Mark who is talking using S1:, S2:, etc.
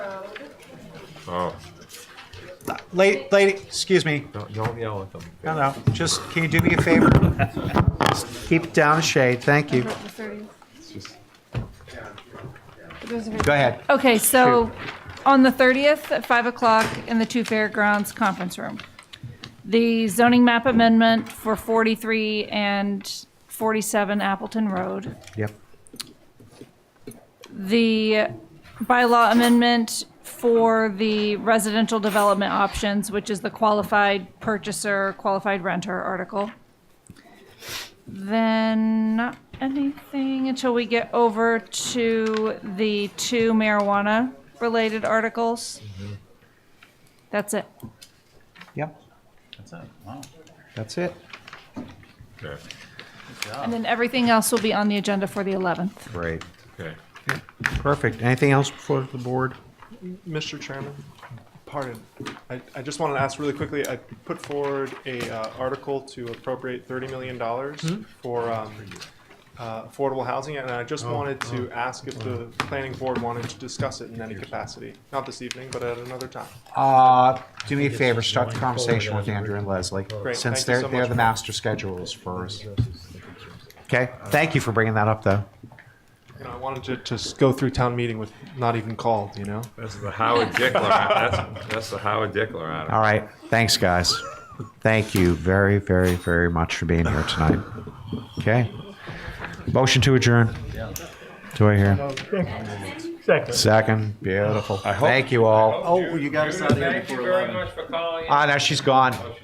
S1: Oh,
S2: Lady, lady, excuse me.
S1: don't, don't yell at them.
S2: No, no. Just can you do me a favor? Just keep it down a shade. Thank you.
S3: About the 30.
S1: It's just-
S3: It doesn't hurt.
S2: Go ahead.
S3: Okay, so on the 30th at 5 o'clock in the two fairgrounds conference room, the zoning map amendment for 43 and 47 Appleton Road,
S2: Yep.
S3: the bylaw amendment for the residential development options, which is the qualified purchaser, qualified renter article. Then not anything until we get over to the two marijuana-related articles. That's it.
S2: Yep.
S4: That's it. Wow.
S2: That's it.
S1: Okay,
S3: And then everything else will be on the agenda for the 11th.
S2: Great.
S1: okay.
S2: Perfect. Anything else before the board?
S5: Mr. Chairman, pardon, I, I just wanted to ask really quickly, I put forward a, uh, article to appropriate thirty million dollars for, um, uh, affordable housing, and I just wanted to ask if the planning board wanted to discuss it in any capacity, not this evening, but at another time.
S2: Uh, do me a favor, start the conversation with Andrew and Leslie,
S5: Great,
S2: since
S5: thank you
S2: they're,
S5: so
S2: they're
S5: much.
S2: the master schedulers for us. Okay, thank you for bringing that up, though.
S5: You know, I wanted to just go through town meeting with not even called, you know?
S1: That's the Howard Dickler, that's, that's the Howard Dickler on it.
S2: All right, thanks, guys. Thank you very, very, very much for being here tonight. Okay. Motion to adjourn. Do I hear?
S6: Second.
S2: Second, beautiful. Thank you all.
S1: Oh, you got us out of here before Thank you very much for calling in.
S2: Ah, now she's gone.